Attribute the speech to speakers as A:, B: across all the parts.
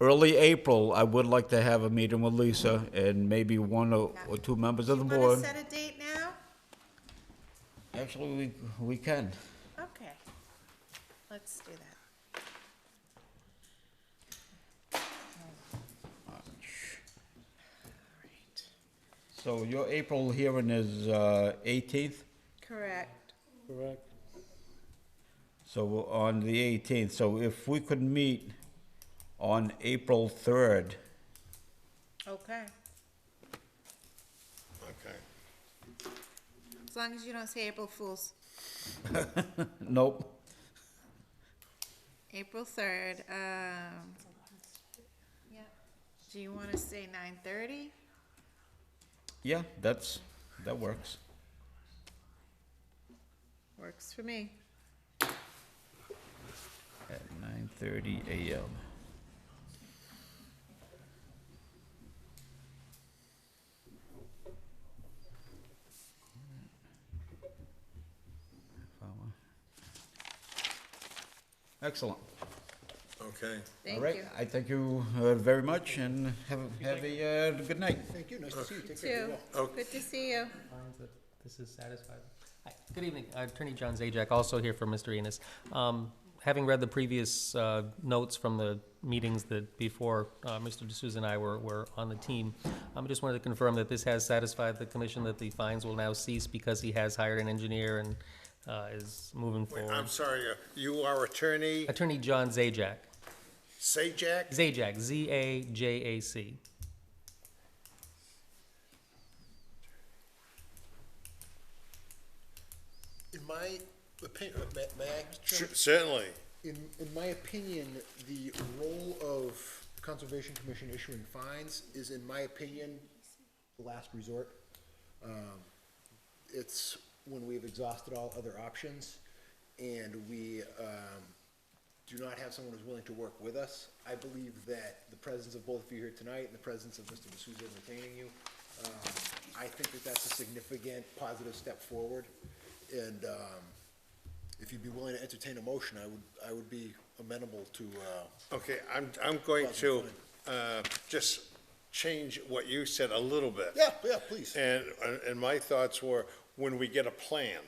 A: early April, I would like to have a meeting with Lisa and maybe one or or two members of the
B: Want to
A: board.
B: set a date now?
A: Actually, we, we can.
B: Okay, let's do that.
A: So your April hearing is uh, 18th?
B: Correct.
C: Correct.
A: So on the 18th, so if we could meet on April 3rd,
B: Okay.
D: Okay.
B: As long as you don't say April Fools.
A: nope,
B: April third, um. yeah. Do you wanna say nine thirty?
A: yeah, that's, that works.
B: Works for me.
A: At 9:30 a.m. Excellent.
D: Okay.
A: All
B: Thank
A: right,
B: you.
A: I thank you uh, very much and have, have a uh, good night.
C: Thank you, nice to see you, take care.
B: Two,
D: Okay.
B: good to see you.
E: finds that this is satisfied. Hi, Good evening, Uh, Attorney John Zajac, also here for Mr. Enos. Um, Having read the previous uh, notes from the meetings that before uh, Mr. D'Souza and I were, were on the team, I just wanted to confirm that this has satisfied the commission that the fines will now cease because he has hired an engineer and uh, is moving
D: Wait, I'm
E: forward.
D: sorry, uh, you are attorney
E: Attorney John Zajac,
D: Sajak?
E: Zajac, Z-A-J-A-C.
F: In my opinion, may I,
D: Sure, Certainly.
F: in, in my opinion, the role of Conservation Commission issuing fines is, in my opinion, the last resort. Um, It's when we've exhausted all other options and we, um, do not have someone who's willing to work with us. I believe that the presence of both of you here tonight and the presence of Mr. D'Souza retaining you, um, I think that that's a significant positive step forward. And, um, if you'd be willing to entertain a motion, I would, I would be amenable to, uh,
D: Okay, I'm, I'm going
F: Well,
D: to, uh, just change what you said a little bit.
F: yeah, yeah, please.
D: And, and my thoughts were, when we get a plan,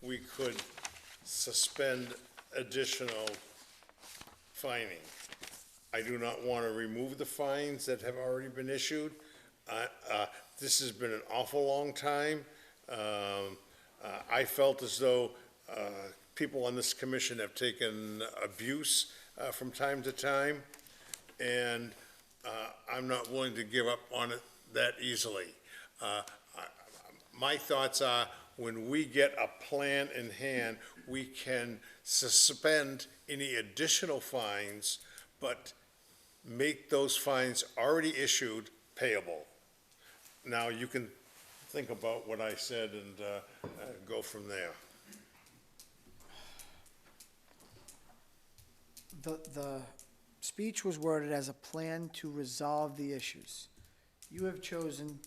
D: we could suspend additional fining. I do not want to remove the fines that have already been issued. I- uh, This has been an awful long time. Um, uh, I felt as though uh, people on this commission have taken abuse uh, from time to time, and uh, I'm not willing to give up on it that easily. Uh, I- My thoughts are, when we get a plan in hand, we can suspend any additional fines, but make those fines already issued payable. Now, you can think about what I said and uh, uh, go from there.
G: The, the speech was worded as a plan to resolve the issues. You have chosen,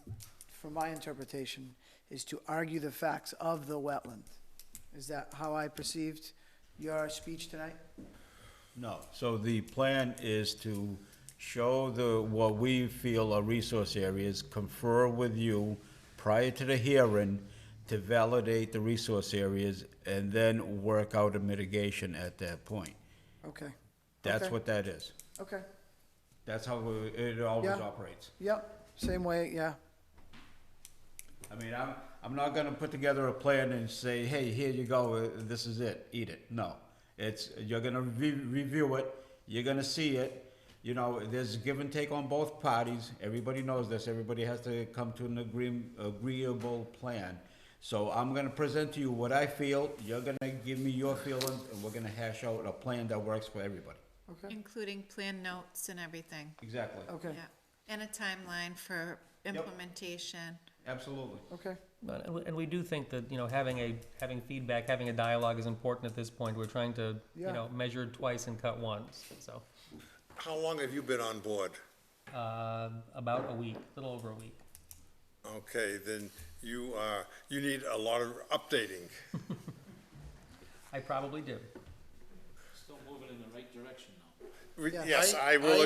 G: from my interpretation, is to argue the facts of the wetland. Is that how I perceived your speech tonight?
A: No, so the plan is to show the, what we feel are resource areas, confer with you prior to the hearing to validate the resource areas, and then work out a mitigation at that point.
G: Okay.
A: That's
G: Okay.
A: what that is.
G: Okay,
A: That's how we- it always
G: Yeah.
A: operates.
G: yep, same way, yeah.
A: I mean, I'm, I'm not gonna put together a plan and say, hey, here you go, uh, this is it, eat it. No. It's, you're gonna re- review it, you're gonna see it. You know, there's give and take on both parties. Everybody knows this. Everybody has to come to an agree- agreeable plan. So I'm gonna present to you what I feel, you're gonna give me your feelings, and we're gonna hash out a plan that works for everybody.
G: Okay,
B: Including plan notes and everything,
A: Exactly.
G: okay,
B: yeah. And a timeline for implementation.
A: Absolutely.
G: okay.
E: But- And we- and we do think that, you know, having a, having feedback, having a dialogue is important at this point. We're trying to, you
G: Yeah.
E: know, measure twice and cut once, so.
D: How long have you been on board?
E: uh, About a week, a little over a week.
D: Okay, then you are, you need a lot of updating.
E: I probably do.
C: Still moving in the right direction, though.
D: Re-
G: Yeah.
D: Yes, I will